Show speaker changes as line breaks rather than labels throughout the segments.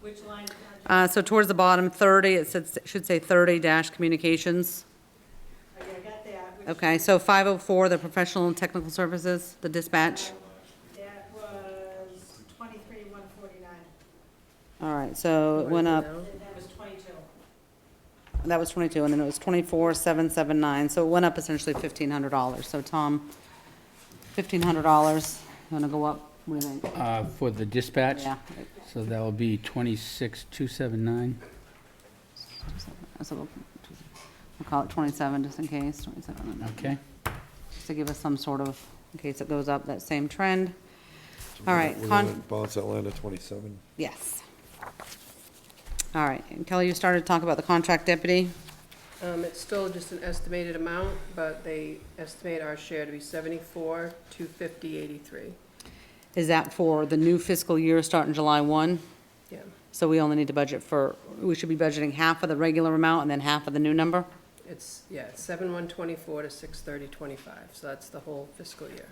which line?
Uh, so towards the bottom, thirty, it says, should say thirty dash communications.
Okay, I got that, which
Okay, so five oh four, the professional and technical services, the dispatch.
that was twenty-three, one forty-nine,
All right, so it went up,
and that was twenty-two.
that was twenty-two, and then it was twenty-four, seven, seven, nine, so it went up essentially fifteen hundred dollars. So Tom, fifteen hundred dollars, you wanna go up, what do you think?
Uh, for the dispatch?
Yeah,
So that will be 26,279.
so we'll, we'll call it twenty-seven, just in case, twenty-seven, and then-
Okay.
just to give us some sort of, in case it goes up, that same trend. All right,
We're
con-
gonna Bounce that line to twenty-seven.
Yes. All right, and Kelly, you started to talk about the contract deputy.
Um, it's still just an estimated amount, but they estimate our share to be seventy-four, two fifty, eighty-three.
Is that for the new fiscal year starting July 1?
Yeah,
So we only need to budget for, we should be budgeting half of the regular amount and then half of the new number?
it's, yeah, it's seven one twenty-four to six thirty twenty-five, so that's the whole fiscal year.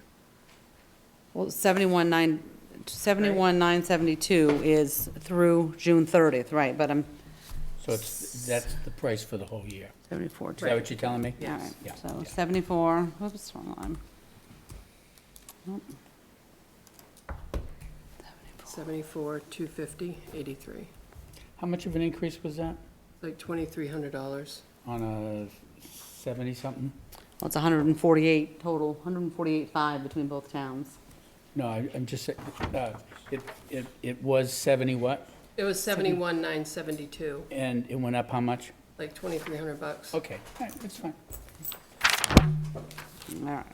Well, 71,9, 71,972 is through June 30th, right, but I'm
So it's, that's the price for the whole year.
74.
Is that what you're telling me?
All right,
Yeah.
so 74, whoops, wrong line. Nope.
Seventy-four, two fifty, eighty-three,
How much of an increase was that
like twenty-three hundred dollars.
on a 70-something?
Well, it's 148 total, 148.5 between both towns.
No, I- I'm just, sa- uh, it, it, it was 70 what?
It was seventy-one, nine seventy-two,
And it went up how much?
like twenty-three hundred bucks.
Okay, all right, that's fine.
All right.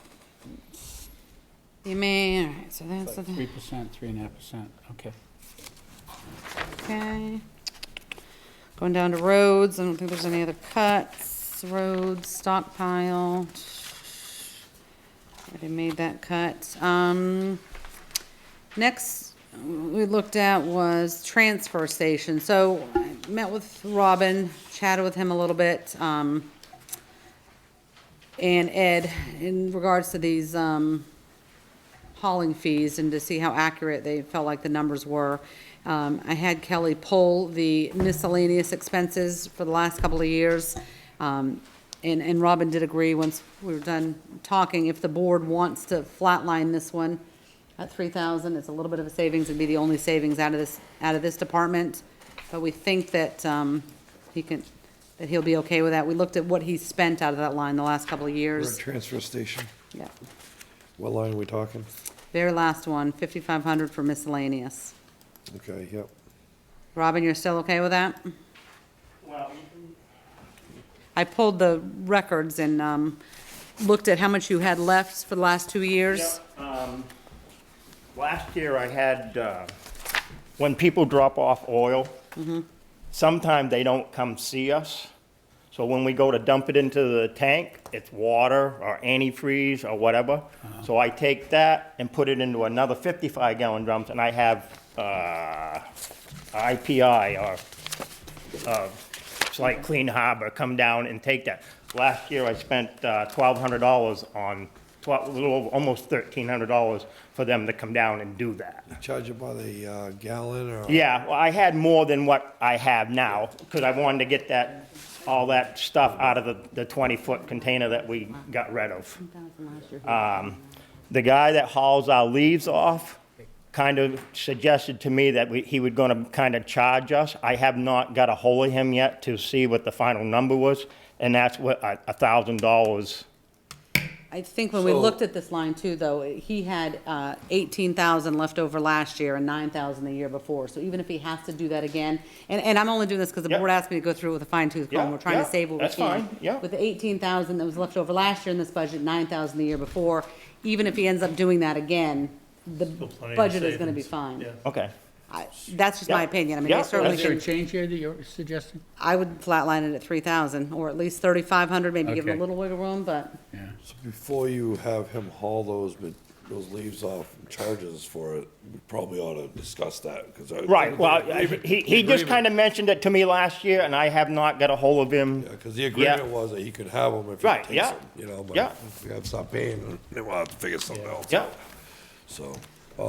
You may, all right, so that's,
It's like
the-
3%, 3.5%, okay.
okay. Going down to roads, I don't think there's any other cuts, roads, stockpile. Already made that cut. Um, next we looked at was transfer station, so I met with Robin, chatted with him a little bit, um, and Ed in regards to these, um, hauling fees and to see how accurate they felt like the numbers were. Um, I had Kelly pull the miscellaneous expenses for the last couple of years. Um, and, and Robin did agree, once we were done talking, if the board wants to flatline this one at three thousand, it's a little bit of a savings, it'd be the only savings out of this, out of this department. But we think that, um, he can, that he'll be okay with that. We looked at what he spent out of that line the last couple of
We're at
years.
transfer station.
Yeah.
What line are we talking?
Very last one, fifty-five hundred for miscellaneous.
Okay, yep.
Robin, you're still okay with that?
Well,
I pulled the records and um, looked at how much you had left for the last two years.
um, last year I had, uh, when people drop off oil, sometimes they don't come see us. So when we go to dump it into the tank, it's water or antifreeze or whatever. So I take that and put it into another fifty-five gallon drums and I have, uh, IPI or It's like uh, Clean Harbor, come down and take that. Last year, I spent uh, $1,200 on, tw- a little, over- almost $1,300 for them to come down and do that.
Charge it by the uh, gallon or?
Yeah, well, I had more than what I have now, because I wanted to get that, all that stuff out of the, the 20-foot container that we got rid of. Um, The guy that hauls our leaves off kind of suggested to me that we- he would going to kind of charge us. I have not got a hold of him yet to see what the final number was, and that's what, a a thousand dollars.
I think when we
So-
looked at this line too, though, he had uh, 18,000 left over last year and 9,000 the year before. So even if he has to do that again, and, and I'm only doing this because the
Yeah.
board asked me to go through it with a fine tooth comb.
Yeah,
We're trying to
yeah,
save what we
that's
can.
fine, yeah.
With the 18,000 that was left over last year in this budget, 9,000 the year before, even if he ends up doing that again, the
plenty of
budget is going to be
savings,
fine.
yeah.
Okay.
I- That's just my
Yeah.
opinion. I mean, they
Yeah,
certainly
Is there a
can
change here that you're suggesting?
I would flatline it at three thousand, or at least thirty-five hundred, maybe give them a
Okay.
little wiggle room, but,
Yeah.
So Before you have him haul those, ma- those leaves off and charges for it, we probably ought to discuss that, because.
Right, well, I- he, he just kind of mentioned it to me last year, and I have not got a hold of him.
Because the agreement was that he could have them if he
Right,
takes
yeah.
them, you know, but
Yeah.
if we have to stop paying, then we'll have to figure something else
Yeah.
out. So,